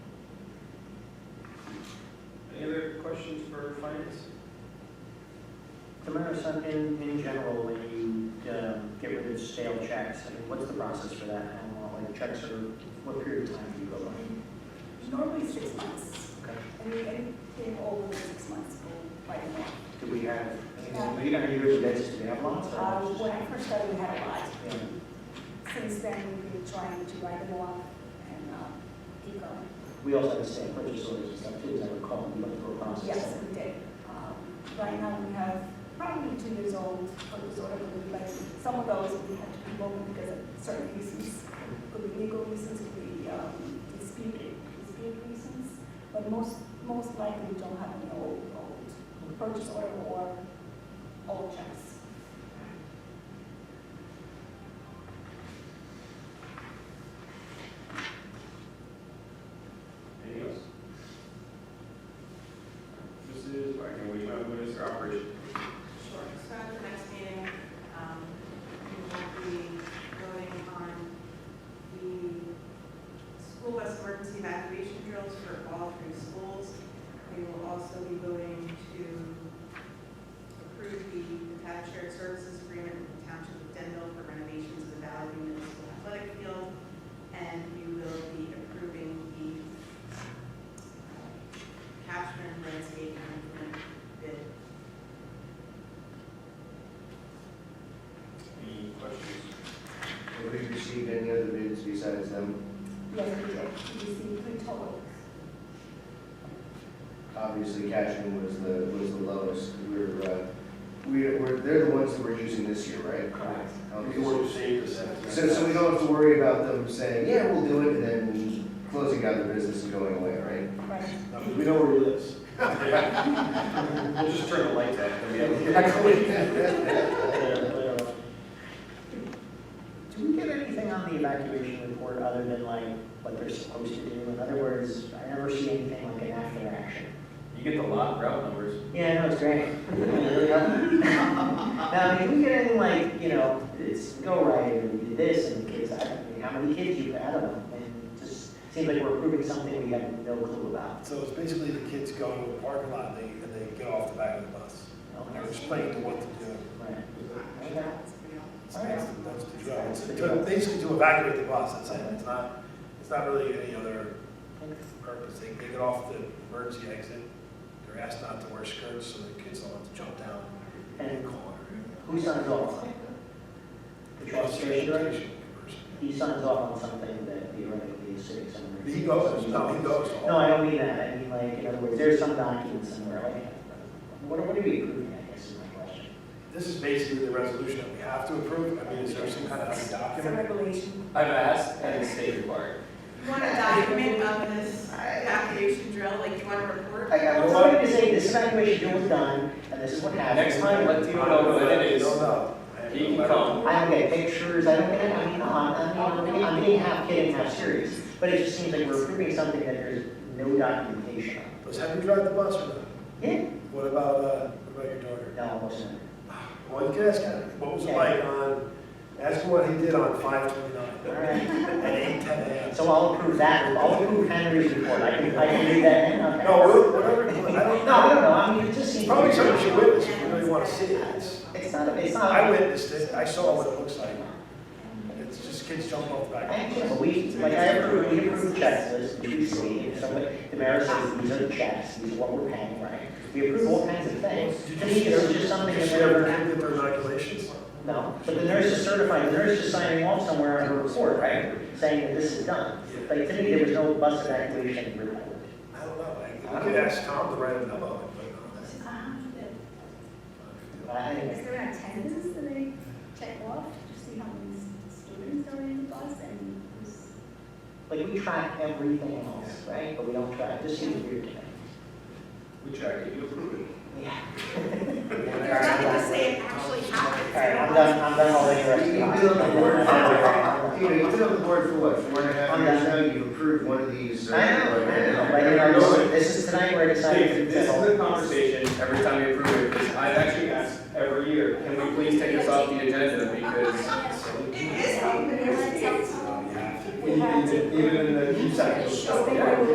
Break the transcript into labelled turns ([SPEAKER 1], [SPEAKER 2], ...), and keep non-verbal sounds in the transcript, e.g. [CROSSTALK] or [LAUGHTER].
[SPEAKER 1] questions for finance?
[SPEAKER 2] Tamara, so in, in general, when you um, get rid of stale checks, I mean, what's the process for that? How long, like checks are, what period of time do you go by?
[SPEAKER 3] Normally six months,
[SPEAKER 2] Okay.
[SPEAKER 3] and we, anything over the six months will quite a lot.
[SPEAKER 2] Do we have, I mean, are you really guys, do we have lots or?
[SPEAKER 3] Uh, when I first started, we had a lot.
[SPEAKER 2] Yeah.
[SPEAKER 3] Since then, we've been trying to write them off and, um, keep going.
[SPEAKER 2] We also have the same purchase orders and stuff too, as I recall, we went through a process.
[SPEAKER 3] Yes, we did. Um, Right now, we have probably two years old, or was ordered, but some of those we had to revoke because of certain reasons. Could be legal reasons, could be um, dispute, dispute reasons, but most, most likely we don't have any old, old purchase order or old checks.
[SPEAKER 1] Anything else? Mrs. Wagner, will you mind moving us to operations?
[SPEAKER 4] Sure, so at the next meeting, um, we will be voting on the school bus emergency evacuation drills for all three schools. We will also be voting to approve the attached shared services agreement with the township of Denville for renovations of the Valley View Municipal Athletic Field. And we will be approving the uh, capture and landscape management bid
[SPEAKER 1] Any questions?
[SPEAKER 5] Have we received any other bids besides them?
[SPEAKER 3] Yes, we did. We received three total.
[SPEAKER 5] Obviously, Cashman was the, was the lowest. We're, uh, we- we're, they're the ones that we're using this year, right?
[SPEAKER 3] Correct.
[SPEAKER 5] Okay, so- So, so we don't have to worry about them saying, yeah, we'll do it, and then closing out the business and going away, right?
[SPEAKER 3] Right.
[SPEAKER 1] No, 'cause we know where he lives. We'll just turn the lights out. and we have- Yeah, yeah.
[SPEAKER 2] Do we get anything on the evacuation report other than like what they're supposed to do? In other words, I never see anything like an after action.
[SPEAKER 1] You get the lot route numbers.
[SPEAKER 2] Yeah, no, it's great. There we go. Now, I mean, do we get anything like, you know, it's go right, and we did this, and kids, I mean, how many kids you, I don't know. And it just seems like we're proving something we have no clue about.
[SPEAKER 6] So it's basically the kids go to a parking lot, they, and they get off the back of the bus. And they're explained to what to do.
[SPEAKER 2] Right. Okay.
[SPEAKER 6] It's basically, that's the drill. It's to- basically to evacuate the bus, that's it. It's not, it's not really any other purpose. They, they get off the emergency exit. They're asked not to wear skirts, so the kids don't have to jump down and call her.
[SPEAKER 2] Who signs off? The transportation director? He signs off on something that theoretically is civic center.
[SPEAKER 6] He goes, no, he goes.
[SPEAKER 2] No, I don't mean that, I mean like, in other words, there's some document somewhere, like, what are, what are we approving, I guess is my question.
[SPEAKER 6] This is basically the resolution that we have to approve. I mean, is there some kind of
[SPEAKER 3] It's a
[SPEAKER 6] document?
[SPEAKER 3] regulation.
[SPEAKER 7] I've asked, and it's state required.
[SPEAKER 4] You want a document of this evacuation drill, like you want a report?
[SPEAKER 2] I, I was going to say, this evacuation deal was done, and this is what happened.
[SPEAKER 7] Next time, let
[SPEAKER 6] I
[SPEAKER 7] Theo
[SPEAKER 6] don't
[SPEAKER 7] know
[SPEAKER 6] know.
[SPEAKER 7] what it
[SPEAKER 6] I
[SPEAKER 7] is.
[SPEAKER 6] don't know.
[SPEAKER 7] He can come.
[SPEAKER 2] I don't get pictures, I don't get, I mean, I'm, I'm being, I'm being half kidding, half serious, but it just seems like we're approving something that there's no documentation of.
[SPEAKER 6] Was Henry driving the bus or not?
[SPEAKER 2] Yeah,
[SPEAKER 6] What about, uh, what about your daughter?
[SPEAKER 2] no, it wasn't.
[SPEAKER 6] Well, you can ask him, what was it like on, ask him what he did on five
[SPEAKER 2] All
[SPEAKER 6] twenty-nine
[SPEAKER 2] right,
[SPEAKER 6] at [LAUGHS] eight ten AM.
[SPEAKER 2] so I'll approve that, I'll approve Henry's report, I can, I can read that in, okay?
[SPEAKER 6] No, whatever, I
[SPEAKER 2] No,
[SPEAKER 6] don't
[SPEAKER 2] no,
[SPEAKER 6] know.
[SPEAKER 2] no, I mean, it just seems.
[SPEAKER 6] Probably something you should witness, if you really want to see it. It's-
[SPEAKER 2] It's not, a- it's not. a-
[SPEAKER 6] I witnessed it, I saw what it looks like. It's just kids jumping off the
[SPEAKER 2] I
[SPEAKER 6] back.
[SPEAKER 2] can't believe, like, I approve, we approve checklists, which we see, and somebody, the mayor says, these are the checks, these are what we're paying, right? We approve all kinds of things, to me, it's just something
[SPEAKER 6] Did
[SPEAKER 2] that
[SPEAKER 6] you ever
[SPEAKER 2] they're,
[SPEAKER 6] look at their inoculations?
[SPEAKER 2] no, but the nurse is certified, the nurse is signing off somewhere on her report, right? Saying that this is done, like, to me, there was no bus evacuation report.
[SPEAKER 6] I don't know, I, you could ask Tom to write a memo and put it on there.
[SPEAKER 2] But I
[SPEAKER 3] Is
[SPEAKER 2] think,
[SPEAKER 3] there an attendance that they check off to see how many students are in the bus and who's?
[SPEAKER 2] like, we track everything else, right, but we don't track, this seems weird to me.
[SPEAKER 1] We track it, you approve it.
[SPEAKER 2] Yeah.
[SPEAKER 4] There's nothing to say it actually happened.
[SPEAKER 2] All right, I'm done, I'm done all the rest
[SPEAKER 5] You
[SPEAKER 2] of
[SPEAKER 5] you build the board for, you know,
[SPEAKER 2] it.
[SPEAKER 5] you build the board for what, four and a half years now, you approved one of these. uh,
[SPEAKER 2] I know, I know, like,
[SPEAKER 5] uh,
[SPEAKER 2] you know, this is- this is tonight where I decided.
[SPEAKER 7] Dave,
[SPEAKER 2] to
[SPEAKER 7] this
[SPEAKER 2] settle.
[SPEAKER 7] is the conversation every time we approve it, because I've actually asked every year, can we please take this off the agenda because
[SPEAKER 4] It is, happening.
[SPEAKER 5] Even, even in the few seconds.
[SPEAKER 3] Is there a